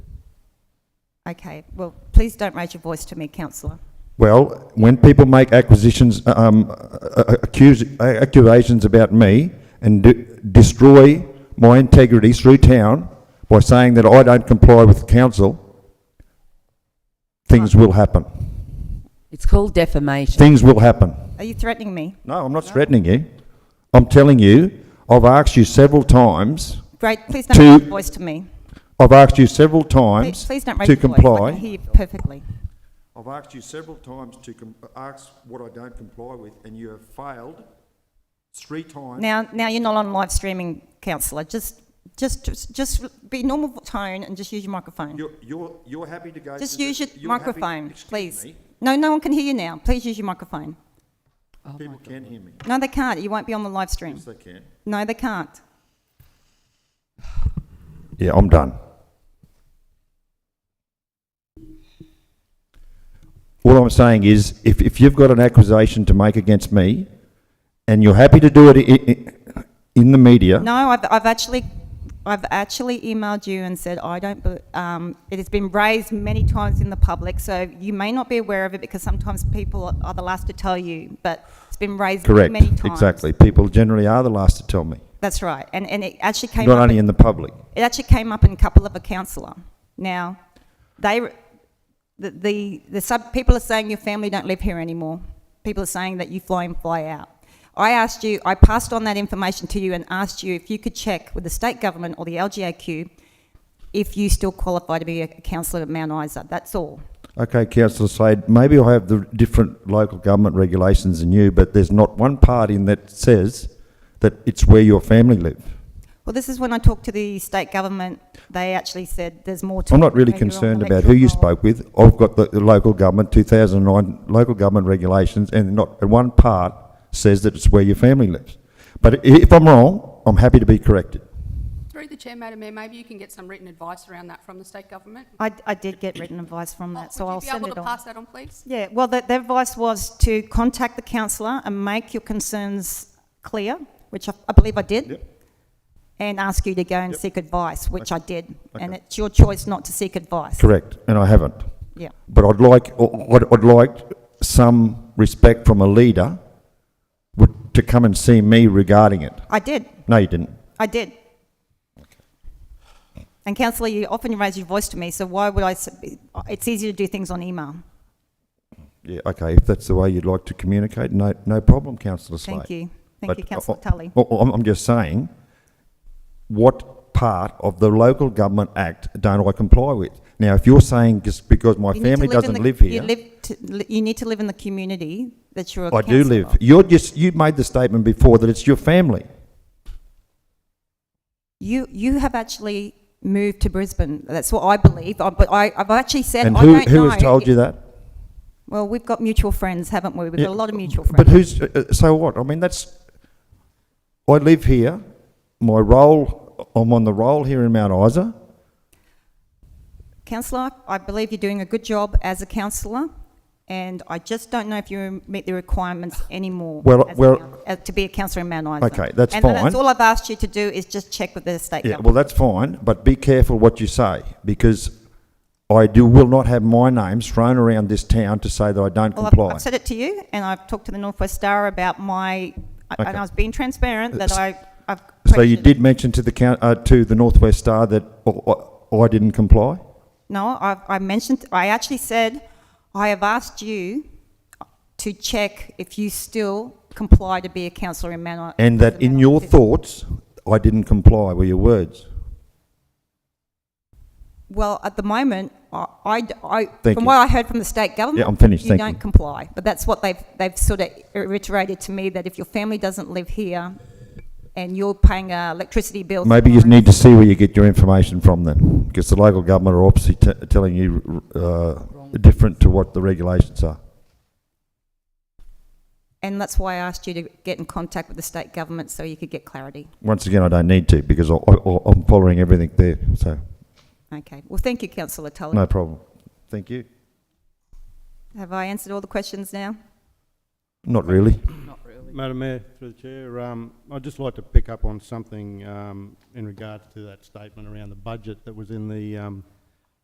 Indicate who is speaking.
Speaker 1: Okay, well, please don't raise your voice to me, councillor.
Speaker 2: Well, when people make acquisitions, um, uh, uh, accuse, uh, accusations about me and de- destroy my integrity through town by saying that I don't comply with council, things will happen.
Speaker 3: It's called defamation.
Speaker 2: Things will happen.
Speaker 1: Are you threatening me?
Speaker 2: No, I'm not threatening you. I'm telling you, I've asked you several times,
Speaker 1: Great, please don't raise
Speaker 2: To-
Speaker 1: your voice to me.
Speaker 2: I've asked you several
Speaker 1: Please,
Speaker 2: times
Speaker 1: please don't raise
Speaker 2: to
Speaker 1: your voice. I
Speaker 2: comply.
Speaker 1: can hear you perfectly.
Speaker 2: I've asked you several times to com- ask what I don't comply with, and you have failed three times.
Speaker 1: Now, now you're not on live streaming, councillor. Just, just, just, just be normal tone and just use your microphone.
Speaker 2: You're, you're, you're happy to go.
Speaker 1: Just
Speaker 2: to the-
Speaker 1: use your
Speaker 2: you're happy-
Speaker 1: microphone,
Speaker 2: excuse
Speaker 1: please.
Speaker 2: me,
Speaker 1: No, no one can hear you now. Please use your microphone.
Speaker 2: People can hear me.
Speaker 1: No, they can't. You won't be on the live stream.
Speaker 2: Yes, they can.
Speaker 1: No, they can't.
Speaker 2: Yeah, I'm done. All I'm saying is, if, if you've got an accusation to make against me, and you're happy to do it i- i- in the media,
Speaker 1: No, I've, I've actually, I've actually emailed you and said, I don't, be- um, it has been raised many times in the public, so you may not be aware of it because sometimes people are the last to tell you, but it's been raised
Speaker 2: correct,
Speaker 1: many times.
Speaker 2: exactly. People generally are the last to tell me,
Speaker 1: That's right. And, and it actually came
Speaker 2: not
Speaker 1: up
Speaker 2: only in the public.
Speaker 1: it actually came up in a couple of a councillor. Now, they, the, the, the sub, people are saying your family don't live here anymore. People are saying that you fly in, fly out. I asked you, I passed on that information to you and asked you if you could check with the state government or the LGAQ if you still qualify to be a councillor at Mount Isa. That's all.
Speaker 2: Okay, councillor Slade, maybe I have the different local government regulations than you, but there's not one part in that says that it's where your family live.
Speaker 1: Well, this is when I talked to the state government. They actually said there's more to
Speaker 2: I'm not
Speaker 1: it
Speaker 2: really
Speaker 1: when you're on
Speaker 2: concerned about who
Speaker 1: electoral
Speaker 2: you
Speaker 1: roll.
Speaker 2: spoke with. I've got the, the local government, 2009 local government regulations, and not one part says that it's where your family lives. But i- if I'm wrong, I'm happy to be corrected.
Speaker 4: Through the chair, Madam Mayor, maybe you can get some written advice around that from the state government.
Speaker 1: I, I did get written advice from that, so I'll send it on.
Speaker 4: Would you be able to pass that on, please?
Speaker 1: Yeah, well, the, the advice was to contact the councillor and make your concerns clear, which I, I believe I did.
Speaker 2: Yep.
Speaker 1: And ask you to go and seek advice, which I did. And
Speaker 2: Okay.
Speaker 1: it's your choice not to seek advice.
Speaker 2: Correct, and I haven't.
Speaker 1: Yeah.
Speaker 2: But I'd like, I'd, I'd like some respect from a leader would- to come and see me regarding it.
Speaker 1: I did.
Speaker 2: No, you didn't.
Speaker 1: I did. And councillor, you often raise your voice to me, so why would I? s- It's easier to do things on email.
Speaker 2: Yeah, okay, if that's the way you'd like to communicate, no, no problem, councillor Slade.
Speaker 1: Thank you. Thank
Speaker 2: But
Speaker 1: you, councillor
Speaker 2: I- I-
Speaker 1: Tully.
Speaker 2: I- I'm, I'm just saying, what part of the Local Government Act don't I comply with? Now, if you're saying just because my
Speaker 1: You need to
Speaker 2: family
Speaker 1: live in
Speaker 2: doesn't
Speaker 1: the-
Speaker 2: live
Speaker 1: You,
Speaker 2: here,
Speaker 1: live to, li- you need to live in the community that you're a
Speaker 2: I do
Speaker 1: councillor.
Speaker 2: live. You're just, you made the statement before that it's your family.
Speaker 1: You you have actually moved to Brisbane. That's what I believe. I, but I, I've actually said
Speaker 2: And
Speaker 1: I
Speaker 2: who,
Speaker 1: don't know.
Speaker 2: who has told you that?
Speaker 1: Well, we've got mutual friends, haven't we? We've
Speaker 2: Yeah,
Speaker 1: got a lot of mutual friends.
Speaker 2: But who's, uh, uh, so what? I mean, that's, I live here, my role, I'm on the roll here in Mount Isa.
Speaker 1: councillor, I believe you're doing a good job as a councillor, and I just don't know if you meet the requirements anymore.
Speaker 2: Well-
Speaker 1: as a
Speaker 2: well-
Speaker 1: coun- uh, to be a councillor in Mount Isa.
Speaker 2: Okay, that's
Speaker 1: and
Speaker 2: fine.
Speaker 1: that's all I've asked you to do is just check with the state
Speaker 2: Yeah, well,
Speaker 1: government.
Speaker 2: that's fine, but be careful what you say, because I do, will not have my names thrown around this town to say that I don't
Speaker 1: I've,
Speaker 2: comply.
Speaker 1: I've said it to you, and I've talked to the Northwest Star about my,
Speaker 2: Okay.
Speaker 1: and I was being transparent that
Speaker 2: S-
Speaker 1: I, I've.
Speaker 2: So you
Speaker 1: questioned-
Speaker 2: did mention to the coun, uh, to the Northwest Star that I, I didn't comply?
Speaker 1: No, I, I mentioned, I actually said, I have asked you to check if you still comply to be a councillor in Mount.
Speaker 2: And that in your thoughts, I didn't comply were your words?
Speaker 1: Well, at the moment, I, I, I-
Speaker 2: Thank
Speaker 1: from
Speaker 2: you.
Speaker 1: what I heard from the state government.
Speaker 2: I'm finished,
Speaker 1: Um, You
Speaker 2: thank
Speaker 1: don't
Speaker 2: you.
Speaker 1: comply, but that's what they've, they've sort of reiterated to me, that if your family doesn't live here and you're paying uh, electricity bills.
Speaker 2: Maybe you need to see where you get your information from then, because the local government are obviously t- telling you, uh, different to what the regulations are.
Speaker 1: And that's why I asked you to get in contact with the state government so you could get clarity.
Speaker 2: Once again, I don't need to, because I, I, I'm following everything there, so,
Speaker 1: Okay, well, thank you, councillor Tully.
Speaker 2: no problem. Thank you.
Speaker 1: Have I answered all the questions now?
Speaker 2: Not really.
Speaker 5: Madam Mayor, through the chair, um, I'd just like to pick up on something um, in regards to that statement around the budget that was in the um,